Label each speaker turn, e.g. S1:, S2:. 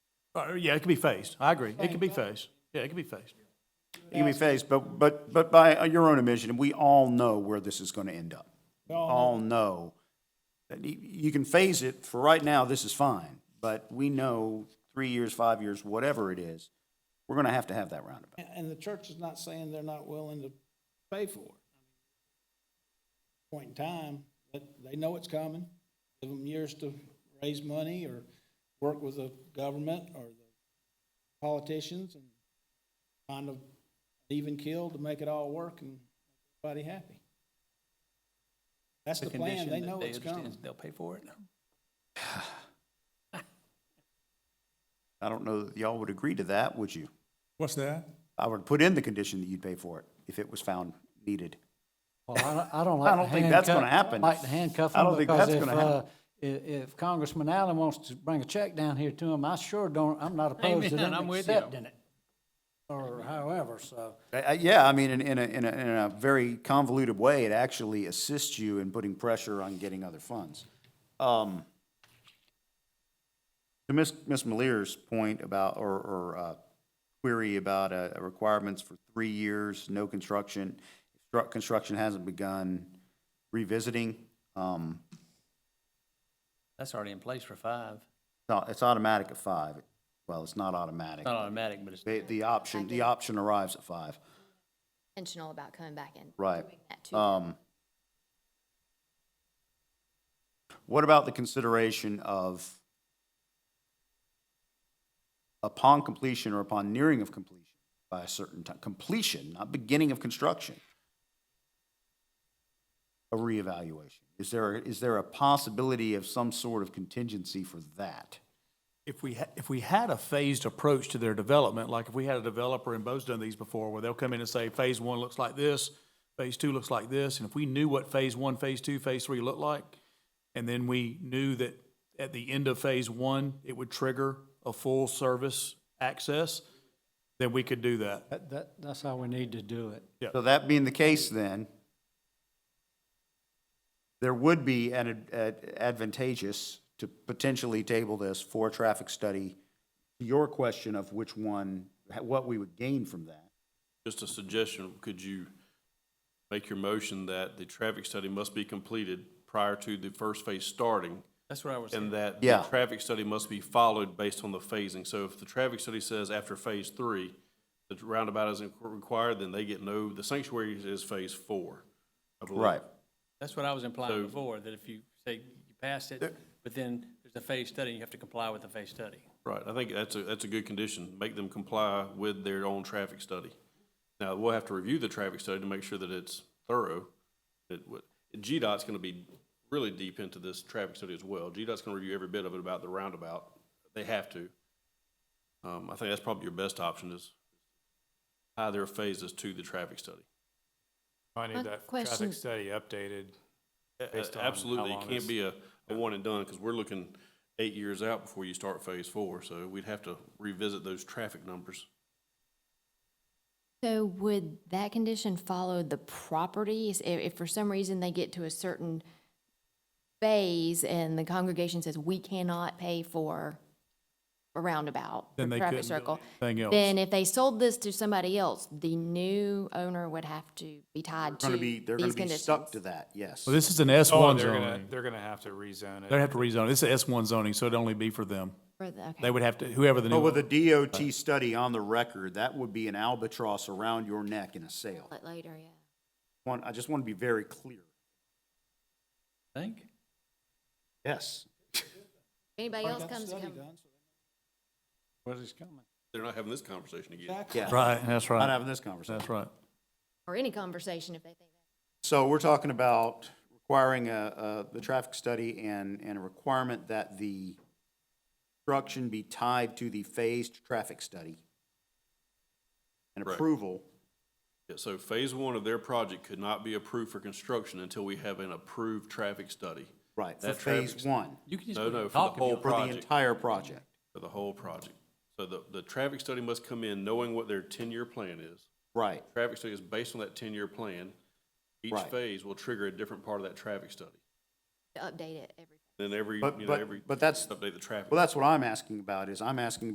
S1: Uh, yeah, it could be phased. I agree. It could be phased. Yeah, it could be phased.
S2: It can be phased, but, but, but by uh, your own admission, we all know where this is gonna end up. We all know. that You you can phase it, for right now, this is fine, but we know three years, five years, whatever it is, we're gonna have to have that roundabout.
S3: And, and the church is not saying they're not willing to pay for it. Point in time, but they know it's coming. Give them years to raise money or work with the government or the politicians and find a even keel to make it all work and everybody happy. That's the plan. They know it's coming.
S4: They'll pay for it.
S2: I don't know that y'all would agree to that, would you?
S5: What's that?
S2: I would put in the condition that you'd pay for it if it was found needed.
S6: Well, I don't, I don't
S2: I
S6: like.
S2: don't
S6: to
S2: think that's gonna
S6: handcuff-
S2: happen.
S6: Like to handcuff
S2: I don't
S6: them
S2: think
S6: because
S2: that's
S6: if,
S2: gonna happen.
S6: uh, i- if Congressman Allen wants to bring a check down here to him, I sure don't, I'm not opposed to
S4: Amen,
S6: them
S4: I'm with you.
S6: accepting it. Or however, so.
S2: Uh, uh, Yeah, I mean, in, in a, in a, in a very convoluted way, it actually assists you in putting pressure on getting other funds. Um, To Ms., Ms. Malier's point about, or, or, uh, query about, uh, requirements for three years, no construction, stru- construction hasn't begun, revisiting, um,
S4: That's already in place for five.
S2: no, it's automatic at five. Well, it's not automatic.
S4: It's not automatic, but it's,
S2: The, the option, the option arrives at five.
S7: intentional about coming back and
S2: Right.
S7: doing that too.
S2: Um, what about the consideration of upon completion or upon nearing of completion by a certain time, completion, not beginning of construction? A reevaluation. Is there, is there a possibility of some sort of contingency for that?
S1: If we, ha- if we had a phased approach to their development, like if we had a developer, and Bo's done these before, where they'll come in and say, phase one looks like this, phase two looks like this, and if we knew what phase one, phase two, phase three looked like, and then we knew that at the end of phase one, it would trigger a full service access, then we could do that.
S6: That, that, that's how we need to do it.
S2: So that being the case then, there would be an ad- ad- advantageous to potentially table this for a traffic study. Your question of which one, what we would gain from that.
S8: Just a suggestion, could you make your motion that the traffic study must be completed prior to the first phase starting?
S4: that's what I was saying.
S8: And that the
S2: Yeah.
S8: traffic study must be followed based on the phasing. So if the traffic study says after phase three, the roundabout isn't required, then they get no, the sanctuary is phase four, I believe.
S4: That's what I was implying
S8: So-
S4: before, that if you say you passed it, but then there's a phase study, you have to comply with the phase study.
S8: Right, I think that's a, that's a good condition, make them comply with their own traffic study. Now, we'll have to review the traffic study to make sure that it's thorough, that what, GDOT's gonna be really deep into this traffic study as well. GDOT's gonna review every bit of it about the roundabout, they have to. Um, I think that's probably your best option is tie their phases to the traffic study.
S5: I need
S7: My
S5: that
S7: question-
S5: traffic study updated.
S8: Uh,
S5: Based on how
S8: Absolutely, it
S5: long
S8: can't
S5: this-
S8: be a, a one and done, because we're looking eight years out before you start phase four, so we'd have to revisit those traffic numbers.
S7: So would that condition follow the properties? If, if for some reason they get to a certain phase and the congregation says, we cannot pay for a roundabout,
S1: Then
S7: or
S1: they
S7: traffic
S1: couldn't do
S7: circle.
S1: anything else.
S7: Then if they sold this to somebody else, the new owner would have to be
S2: They're
S7: tied to
S2: gonna be,
S7: these
S2: they're gonna be
S7: conditions.
S2: stuck to that, yes.
S1: Well, this is an
S5: Oh,
S1: S1
S5: they're gonna,
S1: zoning.
S5: they're gonna have to rezone
S1: They'd
S5: it.
S1: have to rezone. It's an S1 zoning, so it'd only be for them.
S7: For the- okay.
S1: They would have to, whoever Oh, the new.
S2: But with a DOT study on the record, that would be an albatross around your neck in a sale.
S7: Let Later, yeah.
S2: One, I just want to be very clear.
S4: Think?
S2: Yes.
S7: Anybody else
S3: Got the
S7: comes to
S3: study
S7: come,
S3: done, so
S6: Where's this coming?
S8: They're not having this conversation again.
S3: Exactly.
S2: Yeah.
S1: Right, that's
S2: Not
S1: right.
S2: having this conversation.
S1: That's right.
S7: or any conversation if they think that.
S2: So we're talking about requiring a, a, the traffic study and, and a requirement that the construction be tied to the phased traffic study. And
S8: Correct.
S2: approval,
S8: Yeah, So phase one of their project could not be approved for construction until we have an approved traffic study
S2: right, for
S8: That traffic
S2: phase
S8: study.
S2: one,
S4: You can just go
S8: No, no, for the
S4: talk if you
S8: whole
S4: want.
S2: for the
S8: Project.
S2: entire project.
S8: for the whole project. So the, the traffic study must come in knowing what their ten-year plan is.
S2: Right,
S8: Traffic study is based on that ten-year plan. Each
S2: Right.
S8: phase will trigger a different part of that traffic study.
S7: to update it every.
S8: Then every,
S2: But-
S8: you know,
S2: but-
S8: every.
S2: but that's-
S8: Update the traffic.
S2: well, that's what I'm asking about, is I'm asking